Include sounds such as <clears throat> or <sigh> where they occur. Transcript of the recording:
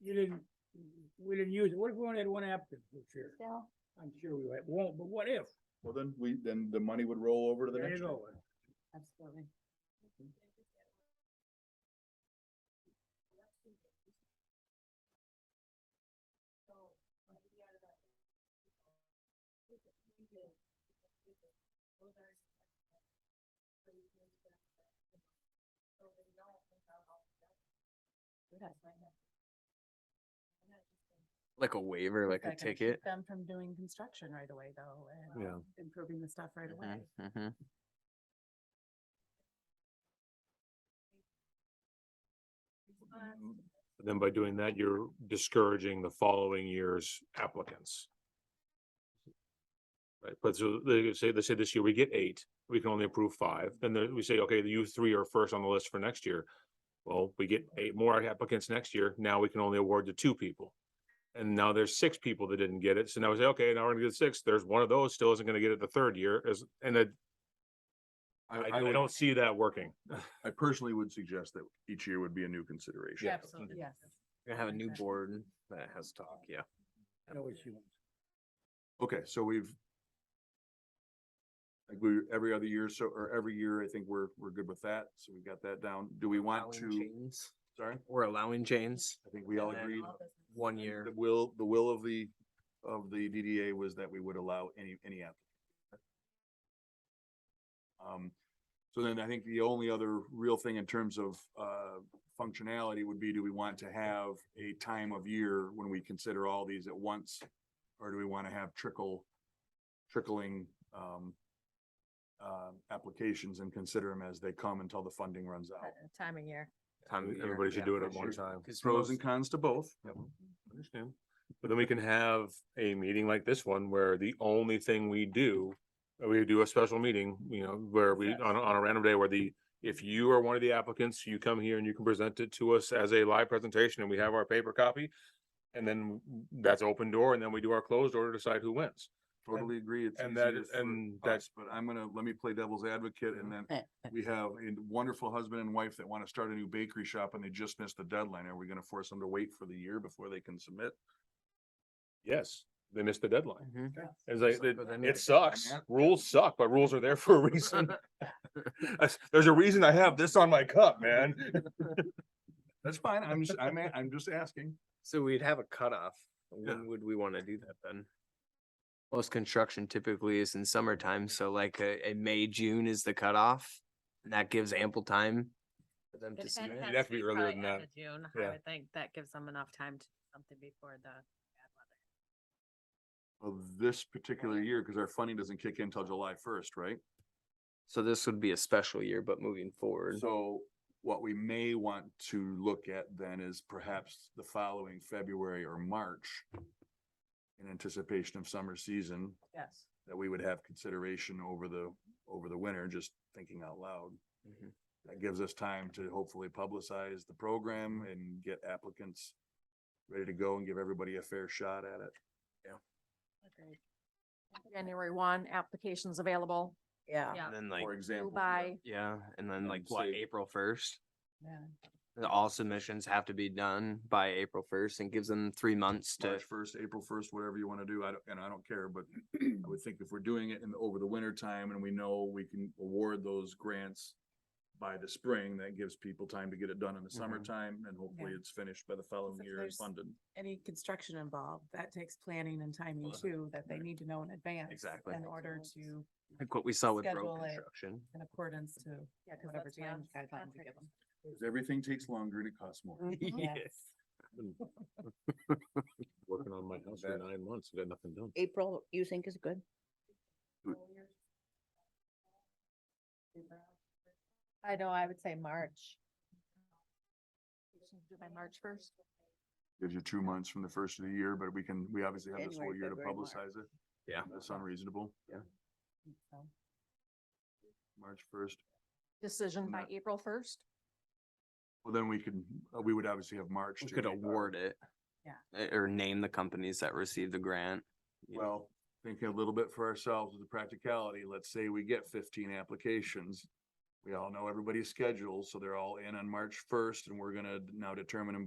you didn't, we didn't use it, what if we only had one applicant this year? Still, I'm sure we won't- won't, but what if? Well, then we, then the money would roll over to the There next you year. go. absolutely. Like a waiver, like a That can keep ticket. Them from doing construction right away though, and Yeah. um, improving the stuff right Mm-hmm, away. Mhm, mhm. Then by doing that, you're discouraging the following year's applicants. Right, but so they say, they say this year we get eight, we can only approve five, then there- we say, okay, you three are first on the list for next year. Well, we get eight more applicants next year, now we can only award to two people. And now there's six people that didn't get it, so now we say, okay, now we're gonna get six, there's one of those still isn't gonna get it the third year, is, and I, I, I would- don't see that working. I personally would suggest that each year would be a new consideration. Absolutely, yes. We're gonna have a new Okay. board that has talk, yeah. I know what she wants. Okay, so we've. Like we, every other year, so, or every year, I think we're, we're good with that, so we've got that down. Do we want Allowing to, chains. sorry, We're allowing chains, I think we all And then agreed. All business. one year. The will, the will of the, of the DDA was that we would allow any, any applicant. Um, so then I think the only other real thing in terms of, uh, functionality would be, do we want to have a time of year when we consider all these at once? Or do we want to have trickle, trickling, um, uh, applications and consider them as they come until the funding runs out? Uh, Time of year. time of year, Everybody should yeah, do it for at one sure. time. 'Cause Pros most- and cons to both. Understand. But then we can have a meeting like this one where the only thing we do, uh, we do a special meeting, you know, where we, on, a- on a random day where the, if you are one of the applicants, you come here and you can present it to us as a live presentation and we have our paper copy. And then that's open door and then we do our closed door to decide who wins. Totally agree. It's and that easier is- for and that- us, But I'm gonna, let me play devil's advocate and then Eh, we have a wonderful husband and wife that wanna start a new bakery shop and they just missed the deadline. Are we gonna force them to wait for the year before they can submit? Yes, they missed the deadline. Mhm. It's like, Suck, it, but then it it's- sucks. Yeah. Rules suck, but rules are there for a <laughs> reason. <laughs> That's- There's a reason I have this on my cup, man. That's fine. I'm just, I'm, a- I'm just asking. So we'd have a cutoff. Yeah. When would we wanna do that then? Most construction typically is in summertime, so like a, a May, June is the cutoff. And that gives ample time for them to It submit. has You'd have to be be earlier probably than end that. of June, Yeah. I would think that gives them enough time to do something before the bad weather. Well, this <laughs> particular year, cause our funding doesn't kick in till July first, right? So this would be a special year, but moving forward. So what we may want to look at then is perhaps the following February or March in anticipation of summer season, Yes. that we would have consideration over the, over the winter, just thinking out loud. Mhm. That gives us time to hopefully publicize the program and get applicants ready to go and give everybody a fair shot at it. Agreed. January one, applications available. Yeah. Yeah. And then like, For example. By, yeah, and then and like what, say- April first? Yeah. All submissions have to be done by April first and gives them three months to, March first, April first, whatever you want to do, I don't, and I don't care, but <clears throat> I would think if we're doing it in, the- over the winter time and we know we can award those grants by the spring, that gives people time to get it done in the Mm-hmm. summertime and hopefully Yeah. it's finished by the following if year and there's- funded. Any construction involved, that takes planning and timing Well, too, that they need to know in advance. Exactly. In order to, like what we saw with road Schedule it. construction. <laughs> in accordance to yeah, because whatever that's when time guideline we give contractors- them. Because everything takes longer and it costs Mm-hmm. more. Yeah. Yes. Working on my house for nine months, got nothing done. April, you think is good? I know, I would say March. By March first. Gives you two months from the first of the year, but we can, we obviously have this whole January, year to February, March. publicize it. Yeah. That's unreasonable. So, March first. Decision by Not- April first. Well, then we can, uh, we would obviously have March. We to could make our- award it. Yeah. uh, Or name the companies that received the grant. you know. Well, thinking a little bit for ourselves with the practicality, let's say we get fifteen applications. We all know everybody's schedules, so they're all in on March first and we're gonna now determine them